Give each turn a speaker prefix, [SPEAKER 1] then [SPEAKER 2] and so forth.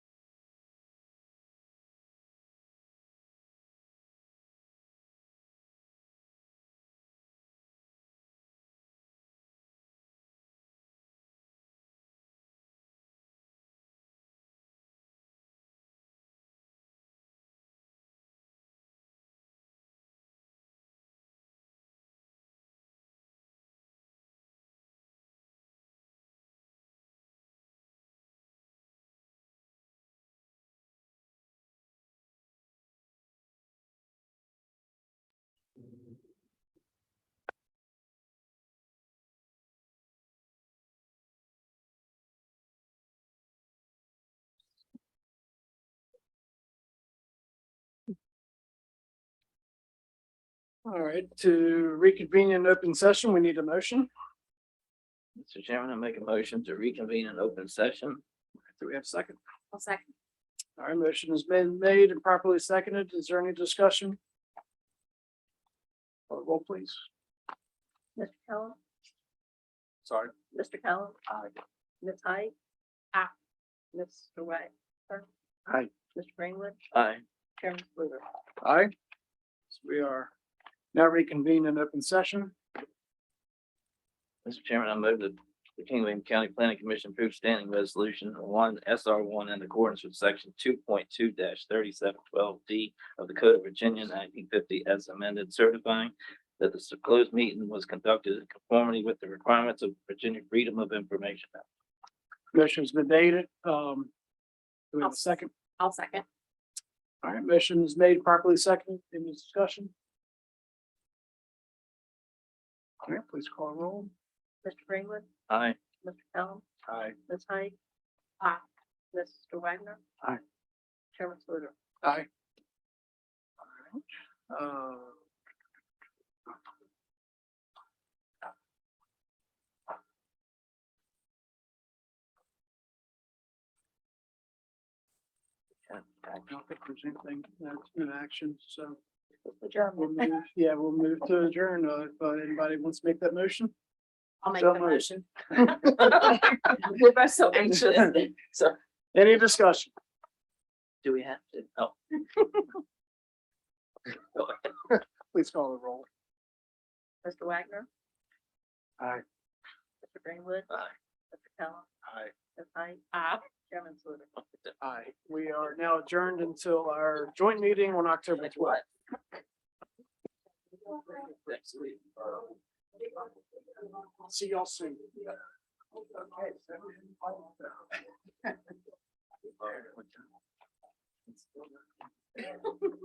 [SPEAKER 1] All right, to reconvene in open session, we need a motion.
[SPEAKER 2] Mr. Chairman, I make a motion to reconvene in open session.
[SPEAKER 1] Do we have a second?
[SPEAKER 3] I'll second.
[SPEAKER 1] All right, motion has been made and properly seconded. Is there any discussion? Uh, Roll please.
[SPEAKER 3] Mr. Kellum,
[SPEAKER 1] Sorry.
[SPEAKER 3] Mr. Kellum. Aye. Ms. Hyde. Aye. Mr. White.
[SPEAKER 2] Aye.
[SPEAKER 3] Mr. Greenwood,
[SPEAKER 2] Aye.
[SPEAKER 3] Chairman Bluder.
[SPEAKER 1] Aye. So We are now reconvened in open session.
[SPEAKER 2] Mr. Chairman, I move that the King William County Planning Commission approve standing resolution one S R one in accordance with section two point two thirty-seven twelve D of the Code of Virginia nineteen fifty as amended certifying that the closed meeting was conducted in conformity with the requirements of Virginia Freedom of Information Act.
[SPEAKER 1] Motion's been made. Um, do we have a second?
[SPEAKER 3] I'll second.
[SPEAKER 1] All right, motion is made properly seconded. Any discussion? All right, please call roll.
[SPEAKER 3] Mr. Greenwood,
[SPEAKER 2] Aye.
[SPEAKER 3] Mr. Kellum,
[SPEAKER 1] Aye.
[SPEAKER 3] Ms. Hyde. Aye. Mr. Wagner.
[SPEAKER 1] Aye.
[SPEAKER 3] Chairman Bluder.
[SPEAKER 1] Aye. All right. Uh, I don't think there's anything that's in action, so we'll
[SPEAKER 3] Chairman.
[SPEAKER 1] move, yeah, we'll move to adjourn. Uh, If uh, anybody wants to make that motion?
[SPEAKER 3] I'll make
[SPEAKER 1] So
[SPEAKER 3] the
[SPEAKER 1] moved.
[SPEAKER 3] motion. We're both so anxious. So,
[SPEAKER 1] Any discussion?
[SPEAKER 2] Do we have to? Oh,
[SPEAKER 1] Please call the roll.
[SPEAKER 3] Mr. Wagner.
[SPEAKER 1] Aye.
[SPEAKER 3] Mr. Greenwood.
[SPEAKER 2] Aye.
[SPEAKER 3] Mr. Kellum,
[SPEAKER 1] Aye.
[SPEAKER 3] Ms. Hyde. Aye. Chairman Bluder.
[SPEAKER 1] Aye. We are now adjourned until our joint meeting on October
[SPEAKER 2] Like
[SPEAKER 1] twelfth.
[SPEAKER 2] what? Next week.
[SPEAKER 1] See y'all soon.
[SPEAKER 2] Uh,